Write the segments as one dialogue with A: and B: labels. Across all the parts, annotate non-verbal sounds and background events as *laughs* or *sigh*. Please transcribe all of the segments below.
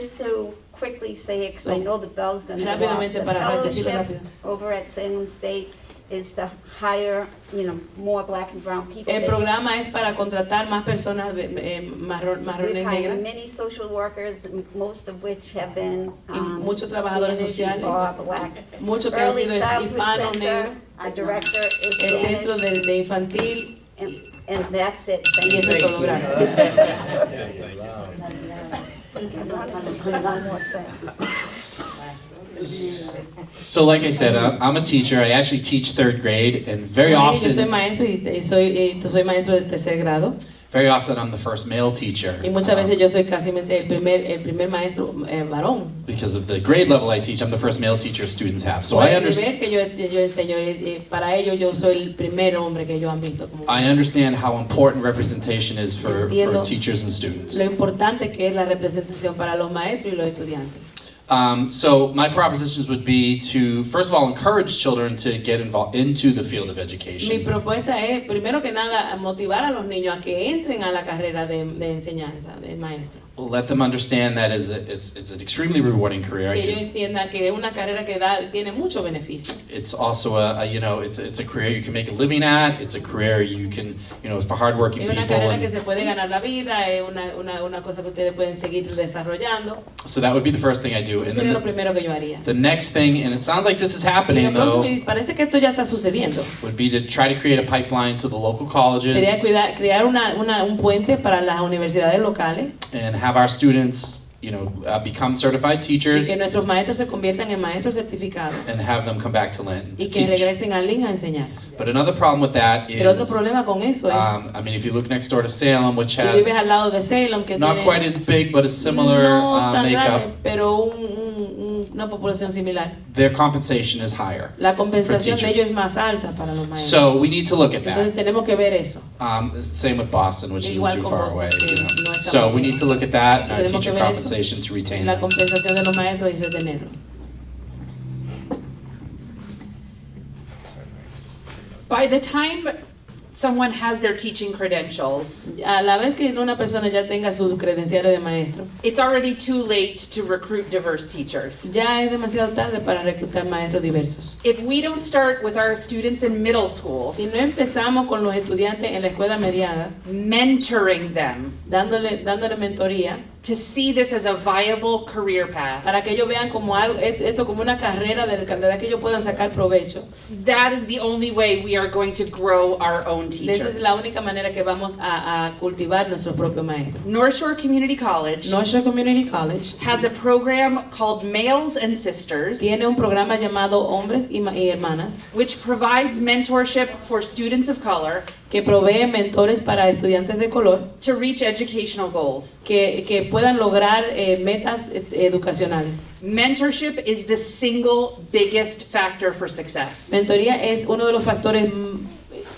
A: Just to quickly say, because I
B: So,
A: know the bell's gonna go off.
B: rápidamente
A: the
B: para- ah, decirlo
A: fellowship
B: rápido.
A: Over at San Luis State is to hire, you know, more black and brown people.
B: El
A: They-
B: programa es para contratar más personas eh, marro-
A: We've hired
B: marrones negras
A: many social workers, m- most of which have been
B: Y
A: um,
B: muchos trabajadores
A: Spanish
B: sociales.
A: or black.
B: muchos que han
A: Early
B: sido hispanos,
A: Childhood
B: negros,
A: Center, our director is
B: el centro
A: Spanish,
B: de, de infantil
A: and- and that's it.
B: y
A: Thank
B: eso es
A: you.
B: todo, gracias.
C: So, like I said, I'm I'm a teacher. I actually teach third grade, and very
B: Yo soy
C: often,
B: maestro y, y soy, eh, soy maestro del tercer grado
C: very often, I'm the first male teacher.
B: y muchas veces
C: Um,
B: yo soy casi el primer, el primer maestro eh, varón.
C: because of the grade level I teach, I'm the first male teacher students have. So I
B: el primer
C: understand.
B: que yo, yo enseño, eh, eh, para ellos yo soy el primer hombre que ellos han visto. como-
C: I understand how important representation is for, for
B: Entiendo.
C: teachers and students.
B: lo importante que es la representación para los maestros y los estudiantes.
C: Um, so my propositions would be to first of all encourage children to get involved into the field of
B: Mi
C: education.
B: propuesta es, primero que nada, motivar a los niños a que entren a la carrera de, de enseñanza, de maestro.
C: Let them understand that is a, it's, it's an extremely rewarding career. I
B: Que ellos
C: can-
B: entiendan que es una carrera que da, tiene muchos beneficios.
C: it's also a, a you know it's it's a career you can make a living at. It's a career you can you know it's for hardworking
B: Es
C: people.
B: una carrera que
C: And
B: se puede ganar la vida, es una, una, una cosa que ustedes pueden seguir desarrollando.
C: so that would be the first thing I do. And
B: Eso sería
C: then
B: lo
C: the,
B: primero que yo haría.
C: the next thing, and it sounds like this is
B: Y lo
C: happening
B: próximo,
C: though,
B: y parece que esto ya está sucediendo.
C: would be to try to create a pipeline to the local
B: Sería
C: colleges
B: cuidar- crear una, una- un puente para las universidades locales
C: and have our students you know uh, become certified
B: y
C: teachers
B: que nuestros maestros se conviertan en maestros certificados
C: and have them come back to Lynn to
B: y que
C: teach.
B: regresen a Lynn a enseñar.
C: But another problem with that
B: Pero otro
C: is,
B: problema con eso es
C: um, I mean, if you look next door to Salem, which
B: Si vives
C: has
B: al lado de Salem, que
C: not
B: tiene
C: quite as big but a similar
B: no
C: uh,
B: tan
C: makeup,
B: grande, pero un- un- un- una población similar.
C: their compensation is higher.
B: La compensación
C: For
B: de ellos
C: teachers.
B: es más alta para los maestros.
C: So we need to look at
B: Entonces
C: that.
B: tenemos que ver eso.
C: Um, it's the same with Boston, which isn't
B: Igual
C: too
B: con
C: far
B: Boston,
C: away.
B: que
C: you know.
B: no es tan
C: So we
B: lejos.
C: need to look at that and our
B: Tenemos que
C: teacher
B: ver eso.
C: compensation to retain
B: La
C: them.
B: compensación de los maestros y retenerlos.
D: *laughs* By the time someone has their teaching credentials,
B: A la vez que una persona ya tenga sus credenciales de maestro,
D: it's already too late to recruit diverse teachers.
B: ya es demasiado tarde para reclutar maestros diversos.
D: If we don't start with our students in middle school,
B: Si no empezamos con los estudiantes en la escuela mediana,
D: mentoring them
B: dándole, dándole mentoría,
D: to see this as a viable career path,
B: para que ellos vean como algo, esto como una carrera de la que ellos puedan sacar provecho,
D: that is the only way we are going to grow our own
B: De esa
D: teachers.
B: es la única manera que vamos a, a cultivar nuestro propio maestro.
D: North Shore Community College
B: North Shore Community College
D: has a program called Males and Sisters,
B: tiene un programa llamado Hombres y, Ma- y Hermanas
D: which provides mentorship for students of color
B: que provee mentores para estudiantes de color
D: to reach educational goals.
B: que, que puedan lograr eh, metas eh, educacionales.
D: Mentorship is the single biggest factor for success.
B: Mentoría es uno de los factores mm,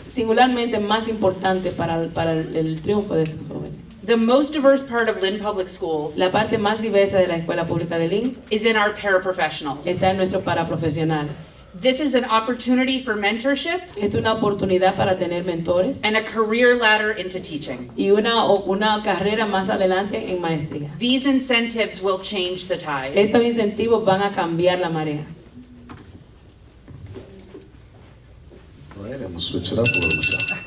B: singularmente más importantes para, el- para el, el triunfo de estos jóvenes.
D: The most diverse part of Lynn Public Schools
B: La parte más diversa de la escuela pública de Lynn
D: is in our paraprofessionals.
B: está en nuestros paraprofesionales.
D: This is an opportunity for mentorship
B: Esta es una oportunidad para tener mentores.
D: and a career ladder into teaching.
B: y una, o- una carrera más adelante en maestría.
D: These incentives will change the tide.
B: Estos incentivos van a cambiar la marea.
E: All right, I'm gonna switch it up a little, Michelle.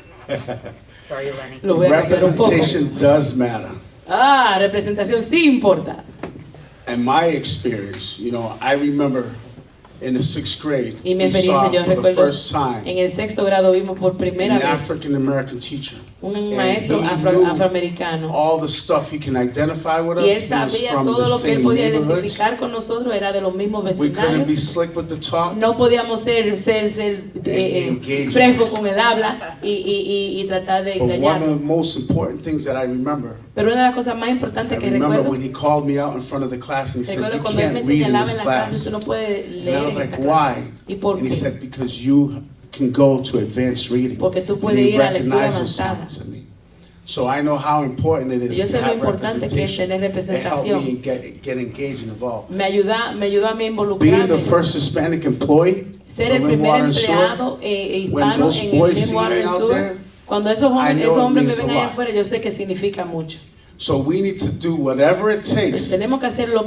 D: Sorry, Lenny.
B: Lo voy a cambiar un poco.
E: Representation does matter.
B: Ah, representación sí importa.
E: In my experience, you know, I remember in the sixth grade,
B: Y mi
E: we saw
B: experiencia, yo
E: for the
B: recuerdo,
E: first
B: en
E: time
B: el sexto grado vimos por
E: an
B: primera vez
E: African-American teacher.
B: un
E: And
B: maestro
E: he
B: afro-
E: knew
B: afroamericano.
E: All the stuff he can identify with us.
B: Y él
E: He was
B: sabía
E: from
B: todo
E: the
B: lo que él
E: same
B: podía
E: neighborhoods.
B: identificar con nosotros, era de los mismos
E: We couldn't be
B: vecindarios.
E: slick with the talk.
B: No podíamos ser, ser, ser eh, eh,
E: Engaged.
B: frescos con el habla y, y- y- y tratar de
E: But one of the
B: engañar.
E: most important things that I remember,
B: Pero una de las cosas más
E: I
B: importantes que
E: remember
B: recuerdo
E: when he called me out in front of the class and he said,
B: Recuerdo
E: you
B: cuando él me
E: can't read in
B: señalaba
E: this
B: en la clase,
E: class.
B: tú no puedes
E: And
B: leer
E: I
B: en
E: was
B: esta
E: like,
B: clase.
E: why?
B: ¿Y por
E: And he
B: qué?
E: said, because you can go to advanced reading.
B: Porque tú
E: And
B: puedes
E: he
B: ir a lectura
E: recognized those
B: avanzada.
E: signs in me. So I know how important it
B: Y
E: is
B: yo
E: to
B: sé lo
E: have
B: importante que es
E: representation.
B: tener
E: It helped me
B: representación.
E: get, get engaged and involved.
B: Me ayuda, me ayudó a mí a
E: Being the
B: involucrarme,
E: first Hispanic employee
B: ser el
E: of
B: primer
E: Water and Sewer,
B: empleado eh,
E: when
B: hispano
E: those
B: en
E: boys
B: el
E: see
B: Lynn Water
E: me
B: and
E: out
B: Sewer,
E: there,
B: Cuando esos jóvenes,
E: I know
B: esos
E: it
B: hombres me
E: means
B: ven
E: a
B: allá
E: lot.
B: afuera, yo sé que significa mucho.
E: so we need to do whatever it takes
B: Tenemos que hacer lo